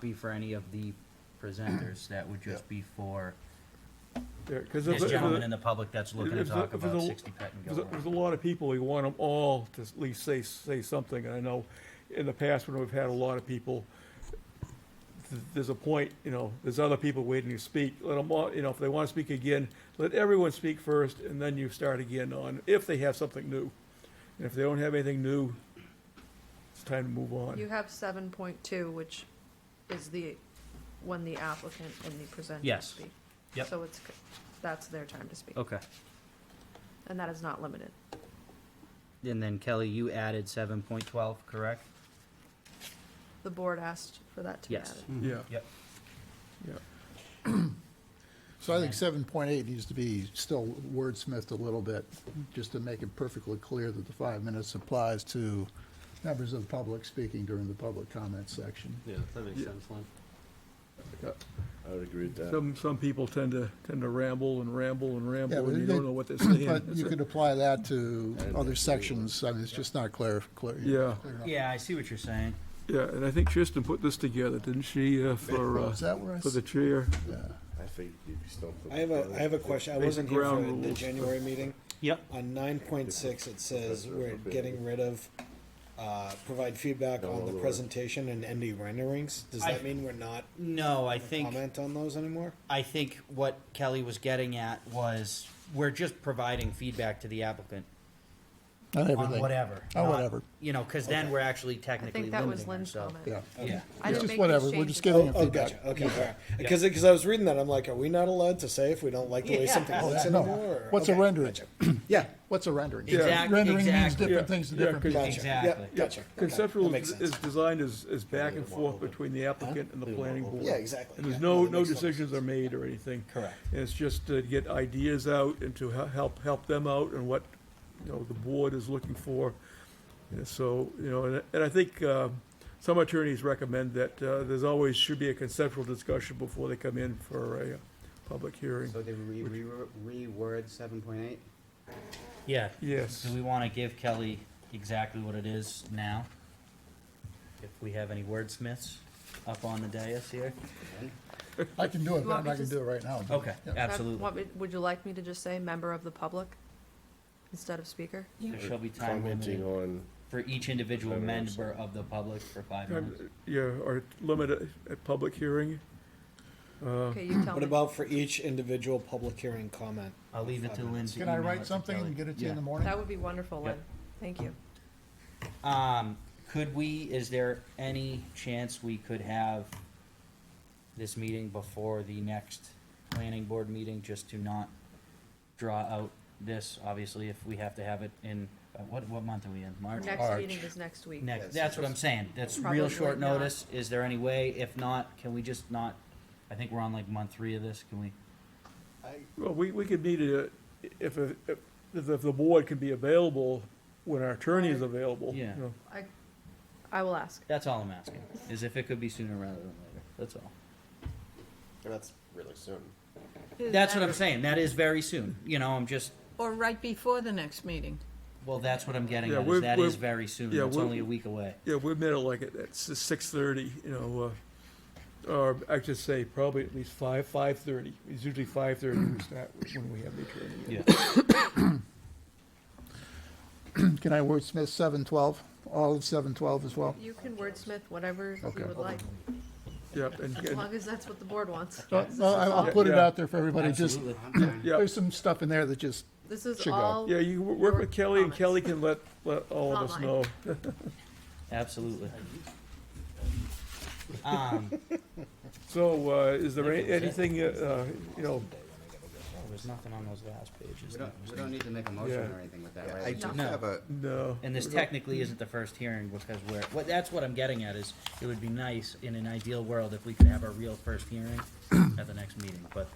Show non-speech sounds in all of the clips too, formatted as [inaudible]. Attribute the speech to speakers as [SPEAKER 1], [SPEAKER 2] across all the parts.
[SPEAKER 1] be for any of the presenters, that would just be for
[SPEAKER 2] Because
[SPEAKER 1] this gentleman in the public that's looking to
[SPEAKER 2] if the-
[SPEAKER 1] talk
[SPEAKER 2] if the-
[SPEAKER 1] about sixty Patton
[SPEAKER 2] There's a, there's a
[SPEAKER 1] Gilmore.
[SPEAKER 2] lot of people, we want them all to at least say, say something, and I know in the past when we've had a lot of people, th- there's a point, you know, there's other people waiting to speak, let them all, you know, if they want to speak again, let everyone speak first, and then you start again on, if they have something new. And if they don't have anything new, it's time to move
[SPEAKER 3] You
[SPEAKER 2] on.
[SPEAKER 3] have seven point two, which is the, when the applicant and the presenter
[SPEAKER 1] Yes.
[SPEAKER 3] speak.
[SPEAKER 1] Yep. Oh.
[SPEAKER 3] So it's, c- that's their time to speak,
[SPEAKER 1] Okay,
[SPEAKER 3] and that is not limited.
[SPEAKER 1] and then Kelly, you added seven point twelve, correct?
[SPEAKER 3] The board asked for that to be
[SPEAKER 1] Yes.
[SPEAKER 3] added.
[SPEAKER 2] Yeah,
[SPEAKER 1] Yep.
[SPEAKER 2] yeah.
[SPEAKER 4] So I think seven point eight needs to be still wordsmithed a little bit, just to make it perfectly clear that the five minutes applies to members of the public speaking during the public comment section.
[SPEAKER 2] [clears throat]
[SPEAKER 5] Yeah, that makes sense, Lynn. I would agree with that.
[SPEAKER 2] Some, some people tend to, tend to ramble and ramble and ramble,
[SPEAKER 4] Yeah, but
[SPEAKER 2] and you
[SPEAKER 4] they-
[SPEAKER 2] don't know
[SPEAKER 4] [clears throat]
[SPEAKER 2] what they're saying.
[SPEAKER 4] But
[SPEAKER 2] That's
[SPEAKER 4] you
[SPEAKER 2] it.
[SPEAKER 4] could apply that to
[SPEAKER 5] I didn't
[SPEAKER 4] other
[SPEAKER 5] think
[SPEAKER 4] sections, I mean, it's just not clear, clear.
[SPEAKER 2] Yeah.
[SPEAKER 4] clear enough.
[SPEAKER 1] Yeah, I see what you're saying.
[SPEAKER 2] Yeah, and I think Tristan put this together, didn't she, uh, for, uh,
[SPEAKER 4] Is that where I,
[SPEAKER 2] for
[SPEAKER 4] s-
[SPEAKER 2] the chair?
[SPEAKER 5] I think you'd be stumped.
[SPEAKER 6] I have a, I have a question. I
[SPEAKER 2] Basic
[SPEAKER 6] wasn't here for
[SPEAKER 2] ground
[SPEAKER 6] the
[SPEAKER 2] rules.
[SPEAKER 6] January meeting.
[SPEAKER 1] Yep.
[SPEAKER 6] On nine point six, it says we're getting rid of, uh, provide feedback on the presentation and ND renderings. Does
[SPEAKER 1] I-
[SPEAKER 6] that mean we're not
[SPEAKER 1] No, I think,
[SPEAKER 6] comment on those anymore?
[SPEAKER 1] I think what Kelly was getting at was, we're just providing feedback to the applicant
[SPEAKER 4] not
[SPEAKER 1] on
[SPEAKER 4] everything,
[SPEAKER 1] whatever.
[SPEAKER 4] Oh,
[SPEAKER 1] not-
[SPEAKER 4] whatever.
[SPEAKER 1] You know, cause then we're actually
[SPEAKER 3] I
[SPEAKER 1] technically
[SPEAKER 3] think
[SPEAKER 1] Mm-hmm. limiting
[SPEAKER 3] that was Lynn's
[SPEAKER 1] ourselves.
[SPEAKER 3] comment.
[SPEAKER 4] yeah.
[SPEAKER 1] Yeah.
[SPEAKER 3] I
[SPEAKER 4] It's
[SPEAKER 3] didn't
[SPEAKER 4] just
[SPEAKER 3] make
[SPEAKER 4] whatever,
[SPEAKER 3] these
[SPEAKER 4] we're
[SPEAKER 3] changes.
[SPEAKER 4] just giving
[SPEAKER 6] Oh,
[SPEAKER 4] them
[SPEAKER 6] oh,
[SPEAKER 4] feedback.
[SPEAKER 6] gotcha. Okay, all right. Because, because I was reading that, I'm like, are we not allowed to say if we don't like the way something
[SPEAKER 1] Yeah.
[SPEAKER 4] Oh,
[SPEAKER 6] looks
[SPEAKER 4] that- no.
[SPEAKER 6] anymore? or-
[SPEAKER 4] What's a
[SPEAKER 6] okay,
[SPEAKER 4] rendering?
[SPEAKER 6] gotcha.
[SPEAKER 4] [clears throat] Yeah, what's a rendering?
[SPEAKER 1] Exact-
[SPEAKER 4] Rendering means
[SPEAKER 1] exactly.
[SPEAKER 4] different things to
[SPEAKER 2] Yeah,
[SPEAKER 4] different
[SPEAKER 2] 'cause-
[SPEAKER 4] people.
[SPEAKER 6] Gotcha.
[SPEAKER 1] Exactly.
[SPEAKER 6] Yep, Gotcha. Okay, that
[SPEAKER 2] Conceptual
[SPEAKER 6] makes
[SPEAKER 2] is
[SPEAKER 6] sense.
[SPEAKER 2] is designed as, as back and forth between the applicant and the planning board.
[SPEAKER 6] Yeah, exactly.
[SPEAKER 2] And there's
[SPEAKER 6] Yeah,
[SPEAKER 2] no,
[SPEAKER 6] that
[SPEAKER 2] no
[SPEAKER 6] makes total
[SPEAKER 2] decisions are made or anything.
[SPEAKER 6] Correct.
[SPEAKER 2] And it's just to get ideas out and to he- help, help them out and what, you know, the board is looking for. And so, you know, and, and I think, uh, some attorneys recommend that, uh, there's always, should be a conceptual discussion before they come in for a uh, public hearing.
[SPEAKER 5] So they re, re, reword seven point eight?
[SPEAKER 1] Yeah.
[SPEAKER 2] Yes.
[SPEAKER 1] Do we wanna give Kelly exactly what it is now? If we have any wordsmiths up on the dais here?
[SPEAKER 4] I can do it,
[SPEAKER 3] You want
[SPEAKER 4] but I'm
[SPEAKER 3] me
[SPEAKER 4] not gonna
[SPEAKER 3] to
[SPEAKER 4] do it right now. but-
[SPEAKER 1] Okay,
[SPEAKER 4] yeah.
[SPEAKER 1] absolutely.
[SPEAKER 3] Want me- Would you like me to just say member of the public instead of speaker?
[SPEAKER 1] There shall be time
[SPEAKER 5] Commenting
[SPEAKER 1] limited
[SPEAKER 5] on,
[SPEAKER 1] for each individual
[SPEAKER 5] Five minutes.
[SPEAKER 1] member of the public for five
[SPEAKER 2] Um,
[SPEAKER 1] minutes.
[SPEAKER 2] Yeah, or limit it at public hearing.
[SPEAKER 1] Uh,
[SPEAKER 3] Okay, you tell
[SPEAKER 6] What
[SPEAKER 3] me.
[SPEAKER 6] about for each individual public hearing comment?
[SPEAKER 1] I'll leave it to Lynn to
[SPEAKER 4] Can I
[SPEAKER 1] email it
[SPEAKER 4] write
[SPEAKER 1] to
[SPEAKER 4] something
[SPEAKER 1] Kelly.
[SPEAKER 4] and get it to you in the morning?
[SPEAKER 3] That would be wonderful, Lynn.
[SPEAKER 1] Yep.
[SPEAKER 3] Thank you.
[SPEAKER 1] Um, could we, is there any chance we could have this meeting before the next planning board meeting, just to not draw out this, obviously, if we have to have it in, uh, what, what month are we in, March?
[SPEAKER 3] Next meeting is next week.
[SPEAKER 1] Next, that's what I'm saying, that's real
[SPEAKER 3] Probably
[SPEAKER 1] short
[SPEAKER 3] not.
[SPEAKER 1] notice, is there any way, if not, can we just not, I think we're on like month three of this, can we?
[SPEAKER 2] Well, we, we could meet it, if, if, if the board can be available when our attorney is available. you
[SPEAKER 1] Yeah.
[SPEAKER 2] know.
[SPEAKER 3] I, I will ask.
[SPEAKER 1] That's all I'm asking, is if it could be sooner rather than later, that's all.
[SPEAKER 5] that's really soon.
[SPEAKER 1] That's what I'm saying, that is very soon, you know, I'm just,
[SPEAKER 7] Or right before the next meeting.
[SPEAKER 1] Well, that's what I'm getting
[SPEAKER 2] Yeah,
[SPEAKER 1] at, is
[SPEAKER 2] we're-
[SPEAKER 1] that
[SPEAKER 2] we're-
[SPEAKER 1] is very soon,
[SPEAKER 2] yeah,
[SPEAKER 1] it's
[SPEAKER 2] we're-
[SPEAKER 1] only a week away.
[SPEAKER 2] Yeah, we met it like at, at six thirty, you know, uh, or I should say probably at least five, five thirty. It's usually five thirty we start when we have the attorney. in.
[SPEAKER 1] Yeah.
[SPEAKER 4] Can I wordsmith seven twelve, all of seven twelve as well?
[SPEAKER 3] You can wordsmith whatever
[SPEAKER 4] Okay.
[SPEAKER 3] you would like,
[SPEAKER 2] Yeah, and,
[SPEAKER 3] as
[SPEAKER 2] and,
[SPEAKER 3] long as that's what the board wants.
[SPEAKER 4] No,
[SPEAKER 3] This is
[SPEAKER 4] no, I- Uh, I'll
[SPEAKER 3] all-
[SPEAKER 4] put it
[SPEAKER 2] Yeah.
[SPEAKER 4] out there for everybody, just,
[SPEAKER 1] Absolutely.
[SPEAKER 2] yeah,
[SPEAKER 4] there's some stuff in there that just,
[SPEAKER 3] This is
[SPEAKER 4] Should go.
[SPEAKER 3] all.
[SPEAKER 2] yeah, you wo- work with Kelly and
[SPEAKER 3] Comments.
[SPEAKER 2] Kelly can let, let all of us
[SPEAKER 3] Online.
[SPEAKER 2] know.
[SPEAKER 1] Absolutely. Um,
[SPEAKER 2] So, uh, is there any-
[SPEAKER 1] That's it.
[SPEAKER 2] anything, uh, uh, you know,
[SPEAKER 1] there was nothing on those last pages.
[SPEAKER 8] We don't, we don't need to make a motion
[SPEAKER 2] Yeah.
[SPEAKER 8] or anything with that,
[SPEAKER 5] Yeah,
[SPEAKER 8] right?
[SPEAKER 5] I
[SPEAKER 8] We
[SPEAKER 5] do
[SPEAKER 8] just-
[SPEAKER 1] No.
[SPEAKER 5] have a,
[SPEAKER 2] no.
[SPEAKER 1] And this technically isn't the first hearing because we're, what, that's what I'm getting at is, it would be nice in an ideal world if we could have a real first
[SPEAKER 2] [clears throat]
[SPEAKER 1] hearing at the next meeting, but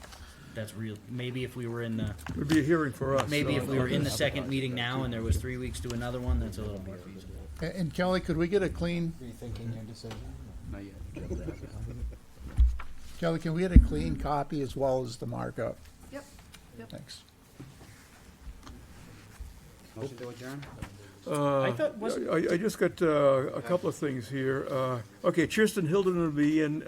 [SPEAKER 1] that's real, maybe if we were in the,
[SPEAKER 2] It'd be a hearing for us.
[SPEAKER 1] maybe
[SPEAKER 2] so-
[SPEAKER 1] if we were in the second meeting now and there was three weeks to another one, that's a little more feasible.
[SPEAKER 4] a- and Kelly, could we get a clean,
[SPEAKER 6] Rethinking your decision?
[SPEAKER 8] Not yet.
[SPEAKER 4] Kelly, can we get a clean copy as well as the markup?
[SPEAKER 3] Yep, yep.
[SPEAKER 4] Thanks.
[SPEAKER 8] Motion to adjourn?
[SPEAKER 2] Uh,
[SPEAKER 1] thought- wasn't-
[SPEAKER 2] I, I just got uh, a couple of things here. Uh, Okay, Tristan Hilden will be in